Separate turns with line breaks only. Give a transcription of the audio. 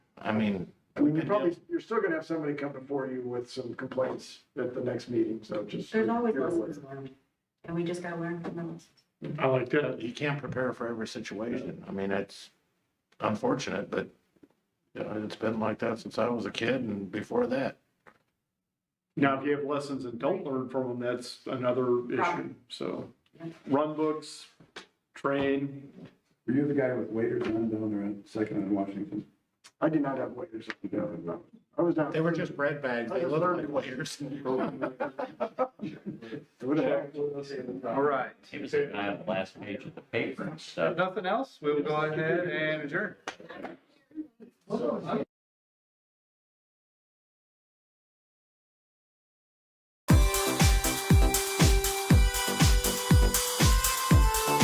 I mean,
I mean, you're probably, you're still gonna have somebody come before you with some complaints at the next meeting, so just.
There's always
you're aware.
lessons learned, and we just gotta learn from them.
I like that.
you can't prepare for every situation. I mean, it's unfortunate, but you know, it's been like that since I was a kid and before that.
Now, if you have lessons and don't learn from them, that's another issue. So run books, train.
Were you the guy with waiters on down there at Second and Washington?
I did not have waiters. No, I was not.
They were just bread bags. They looked like waiters.
All right.
He was looking at the last page of the paper and stuff.
Nothing else? We'll go ahead and adjourn.